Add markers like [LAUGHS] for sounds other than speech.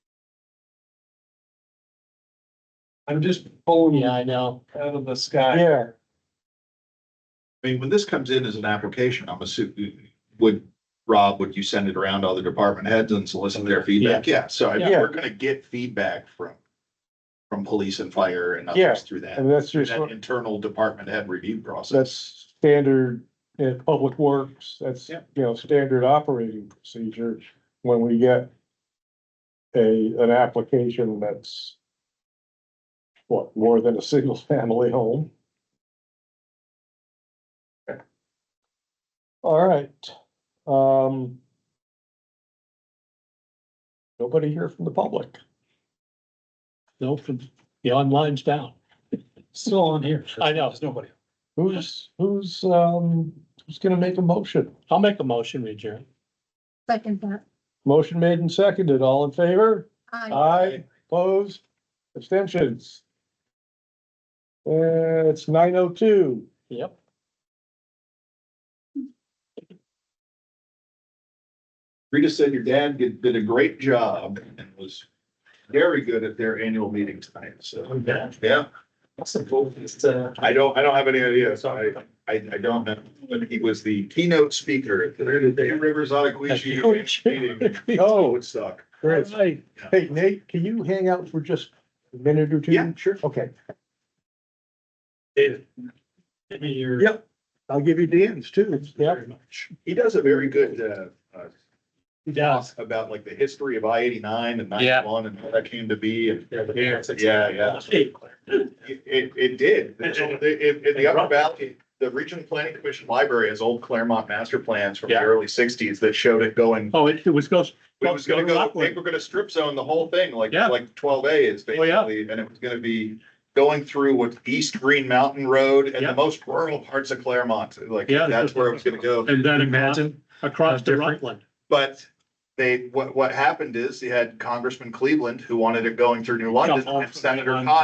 I'm just pulling Yeah, out I know. of the sky. Here, I mean, when this comes in as an application, I'm assuming, would, Rob, would you send it around to other department heads and solicit their feedback? Yeah, so I mean, Yeah. we're gonna get feedback from, from police and fire and Yeah. others through that, and that's just, that internal department head review process. that's standard in public works, that's, you Yep. know, standard operating procedure. When we get a, an application that's what, more than a single [LAUGHS] family home? All right, um. Nobody here from the public. No, from, the online's down. Still on here. I know. There's nobody. Who's, who's, um, who's gonna make a motion? I'll make a motion, we adjourn. Second that. Motion made and seconded, all in favor? Aye. Aye, opposed, abstentions? Uh, it's nine oh two, Yep. Rita said your dad did, did a great job and was very good at their annual meeting tonight, so, Yeah. yeah. That's the vote, it's, [LAUGHS] uh, I don't, I don't have any idea, so I, I, I don't know, but he was the keynote speaker at the Two Rivers Ottaquisha meeting. Oh, it would suck. Chris. Right. Hey Nate, can you hang out for just a minute or two? Yeah, sure. Okay, David. Give me your. Yeah. I'll give you Dan's too. Very much. He does a very good, uh, uh, Yeah. talk about like the history of I eighty-nine and Yeah. ninety-one and how that came to be and Yeah, Yeah, yeah. it, it, it did. There's all- In, in the Upper Valley, the Regional Planning Commission Library has old Claremont master plans from the Yeah. early sixties that showed it going. Oh, it, it was goes, We was gonna go, Lockwood. they were gonna strip zone the whole thing, like, Yeah. like twelve A is Oh, yeah. basically, and it was gonna be going through what East Green Mountain Road and Yeah. the most rural parts of Claremont, like, Yeah. that's where it was gonna go. and then across- Imagine, across How the different. Rutland. But they, what, what happened is you had Congressman Cleveland who wanted it going through New London off and of Senator New London. Cotton